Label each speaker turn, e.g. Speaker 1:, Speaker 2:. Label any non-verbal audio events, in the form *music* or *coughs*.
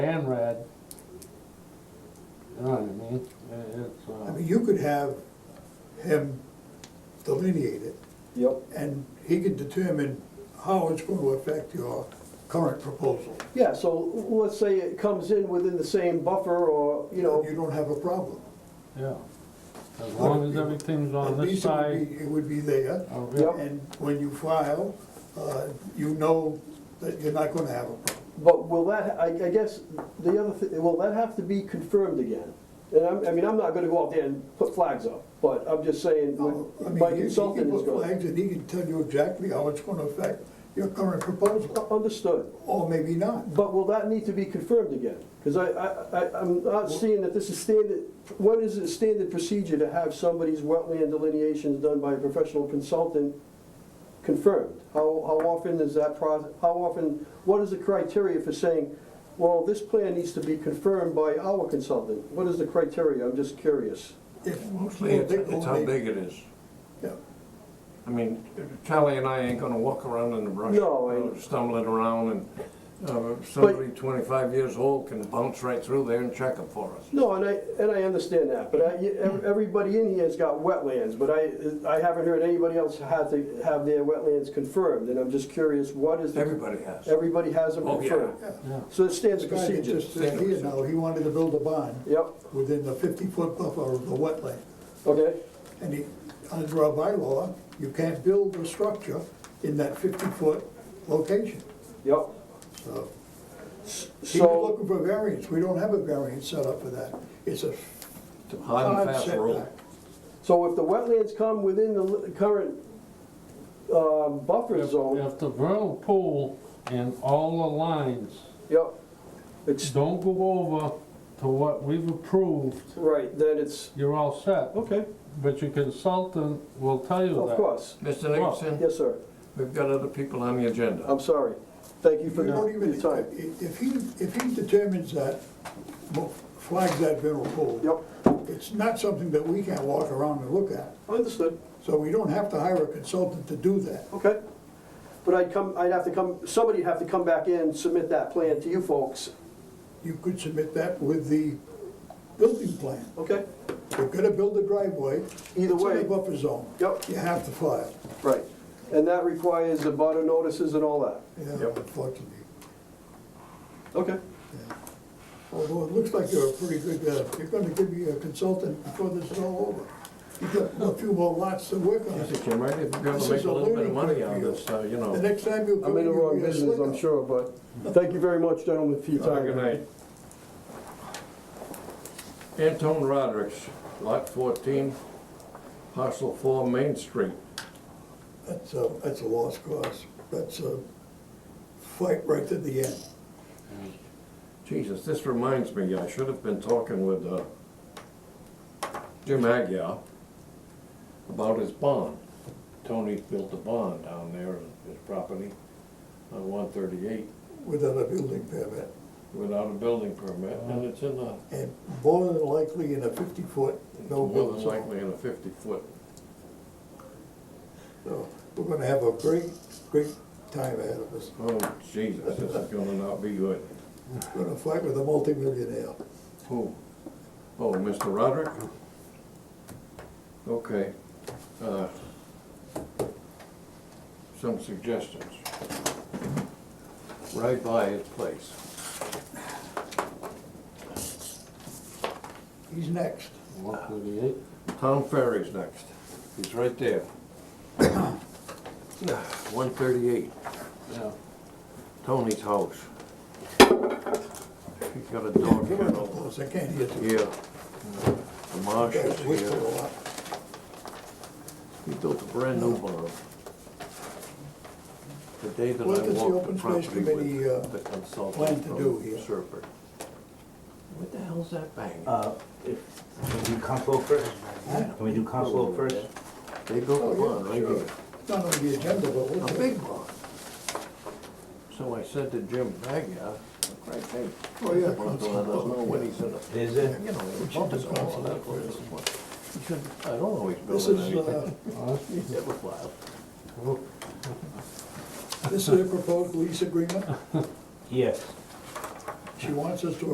Speaker 1: and red. You know what I mean? It- It's, uh,
Speaker 2: I mean, you could have him delineate it,
Speaker 3: Yep.
Speaker 2: and he could determine how it's going to affect your current proposal.
Speaker 3: Yeah, so let's say it comes in within the same buffer or, you know,
Speaker 2: You don't have a problem.
Speaker 1: yeah. As long as everything's on
Speaker 2: At
Speaker 1: this
Speaker 2: least it would
Speaker 1: side. uh,
Speaker 2: be- It would be there,
Speaker 1: of
Speaker 3: Yep.
Speaker 1: it.
Speaker 2: and when you file, uh, you know that you're not going to have a problem.
Speaker 3: but will that, I, I guess, the other thing, will that have to be confirmed again? And I'm, I mean, I'm not gonna go out there and put flags up, but I'm just saying,
Speaker 2: I
Speaker 3: what
Speaker 2: mean,
Speaker 3: my
Speaker 2: he- he
Speaker 3: consultant
Speaker 2: can
Speaker 3: is
Speaker 2: put
Speaker 3: going.
Speaker 2: flags, And he can tell you exactly how it's going to affect your current proposal,
Speaker 3: Understood,
Speaker 2: or maybe not.
Speaker 3: but will that need to be confirmed again? Cause I, I, I, I'm not seeing that this is standard, when is it standard procedure to have somebody's wetland delineations done by a professional consultant confirmed? How, how often is that process, how often, what is the criteria for saying, well, this plan needs to be confirmed by our consultant? What is the criteria? I'm just curious.
Speaker 2: If-
Speaker 4: Mostly, it's it's how big it is.
Speaker 2: Yeah.
Speaker 4: I mean, Charlie and I ain't gonna walk around in the brush.
Speaker 3: No, I-
Speaker 4: you know, Stumbling around and uh, somebody twenty-five years old can bounce right through there and check it for us.
Speaker 3: No, and I, and I understand that, but I, e, ev- everybody in here has got wetlands, but I, I haven't heard anybody else have to have their wetlands confirmed, and I'm just curious, what is the?
Speaker 4: Everybody has.
Speaker 3: Everybody has them
Speaker 4: Oh, yeah.
Speaker 3: confirmed.
Speaker 1: Yeah.
Speaker 3: So it stands
Speaker 2: The guy that
Speaker 3: procedure.
Speaker 2: just said here now, he wanted to build a barn.
Speaker 3: Yep,
Speaker 2: within the fifty-foot buffer of the wetland.
Speaker 3: okay,
Speaker 2: And he- under our bylaw, you can't build a structure in that fifty-foot location.
Speaker 3: yep.
Speaker 2: So he was
Speaker 3: So,
Speaker 2: looking for variance. We don't have a variance set up for that. It's a
Speaker 4: It's a Hard and
Speaker 2: hard
Speaker 4: fast rule.
Speaker 2: setback.
Speaker 3: so if the wetlands come within the li- current um, buffer
Speaker 1: If
Speaker 3: zone,
Speaker 1: if the vernal pool and all the lines
Speaker 3: yep, it's,
Speaker 1: don't go over to what we've approved,
Speaker 3: right, then it's,
Speaker 1: you're all set.
Speaker 3: okay,
Speaker 1: But your consultant will tell you
Speaker 3: of
Speaker 1: that.
Speaker 3: course.
Speaker 4: Mr. Nicholson,
Speaker 3: Yes, sir,
Speaker 4: we've got other people on the agenda.
Speaker 3: I'm sorry. Thank you
Speaker 2: You
Speaker 3: for
Speaker 2: don't
Speaker 3: your
Speaker 2: even,
Speaker 3: your time.
Speaker 2: if if he, if he determines that, mo- flags that vernal pool.
Speaker 3: Yep.
Speaker 2: It's not something that we can't walk around and look at.
Speaker 3: Understood,
Speaker 2: So we don't have to hire a consultant to do that.
Speaker 3: okay. But I'd come, I'd have to come, somebody'd have to come back in, submit that plan to you folks,
Speaker 2: You could submit that with the building plan.
Speaker 3: okay?
Speaker 2: You're gonna build a driveway.
Speaker 3: Either
Speaker 2: It's in
Speaker 3: way.
Speaker 2: a buffer zone.
Speaker 3: Yep.
Speaker 2: You have to file,
Speaker 3: Right. And that requires the butter notices and all that,
Speaker 2: yeah,
Speaker 4: Yep.
Speaker 2: unfortunately.
Speaker 3: okay?
Speaker 2: yeah. Although it looks like you're a pretty good, uh, you're gonna give me a consultant before this is all over. You've got a few more lots to work on.
Speaker 4: Mr. Jim, might be able
Speaker 2: This
Speaker 4: to
Speaker 2: is a
Speaker 4: make a little bit
Speaker 2: learning
Speaker 4: of money
Speaker 2: curve
Speaker 4: on
Speaker 2: for you.
Speaker 4: this, uh, you
Speaker 2: The
Speaker 4: know.
Speaker 2: next time you come.
Speaker 3: I'm in the
Speaker 2: you'll
Speaker 3: wrong
Speaker 2: be a
Speaker 3: business, I'm
Speaker 2: slicker.
Speaker 3: sure, but thank you very much, gentlemen, for your
Speaker 4: Have a
Speaker 3: time.
Speaker 4: Good night. Anton Rodericks, lot fourteen, parcel four, Main Street.
Speaker 2: That's a, that's a lost cause. That's a fight right to the end.
Speaker 4: Jesus, this reminds me, I should have been talking with uh, Jim Agia about his bond. Tony's built a bond down there on his property on one thirty-eight
Speaker 2: without a building permit.
Speaker 4: without a building permit, and it's in the,
Speaker 2: And more than likely in a fifty-foot
Speaker 4: it's
Speaker 2: no
Speaker 4: more
Speaker 2: build
Speaker 4: than
Speaker 2: zone.
Speaker 4: likely in a fifty-foot.
Speaker 2: So we're gonna have a great, great time ahead of us.
Speaker 4: Oh, Jesus, this is gonna not be good.
Speaker 2: We're gonna fight with a multimillionaire.
Speaker 4: Who? Oh, Mr. Roderick? Okay. uh, Some suggestions. Right by his place.
Speaker 2: He's next.
Speaker 1: One thirty-eight.
Speaker 4: Town Ferry's next. He's right there. *coughs* One thirty-eight,
Speaker 1: Yeah.
Speaker 4: Tony's house. He's got a dog
Speaker 2: Give him a
Speaker 4: kennel
Speaker 2: applause, I can't hear you.
Speaker 4: here. The marshes
Speaker 2: Guys whistle a
Speaker 4: here.
Speaker 2: lot.
Speaker 4: He built a brand new barn. The day that
Speaker 2: What
Speaker 4: I
Speaker 2: does the
Speaker 4: walked
Speaker 2: Open
Speaker 4: the
Speaker 2: Space
Speaker 4: property
Speaker 2: Committee, uh,
Speaker 4: with the
Speaker 2: plan
Speaker 4: consultant
Speaker 2: to
Speaker 4: from
Speaker 2: do here?
Speaker 4: Serpent. What the hell's that bang?
Speaker 5: Uh, if, can we do Council first? Can we do Council first?
Speaker 4: They built a
Speaker 2: Oh,
Speaker 4: barn
Speaker 2: yeah,
Speaker 4: right
Speaker 2: sure.
Speaker 4: here,
Speaker 2: It's Not on the agenda, but we'll.
Speaker 4: a big barn. So I said to Jim Bagia, right, hey.
Speaker 2: Oh, yeah,
Speaker 4: Let us know when he's in a,
Speaker 5: Is it?
Speaker 4: you know, he bumped us all on that place. He said, I don't always
Speaker 2: This
Speaker 4: build
Speaker 2: is,
Speaker 4: anything.
Speaker 2: uh,
Speaker 4: He never filed.
Speaker 2: uh, this is a proposed lease agreement.
Speaker 5: Yes.
Speaker 2: She wants us to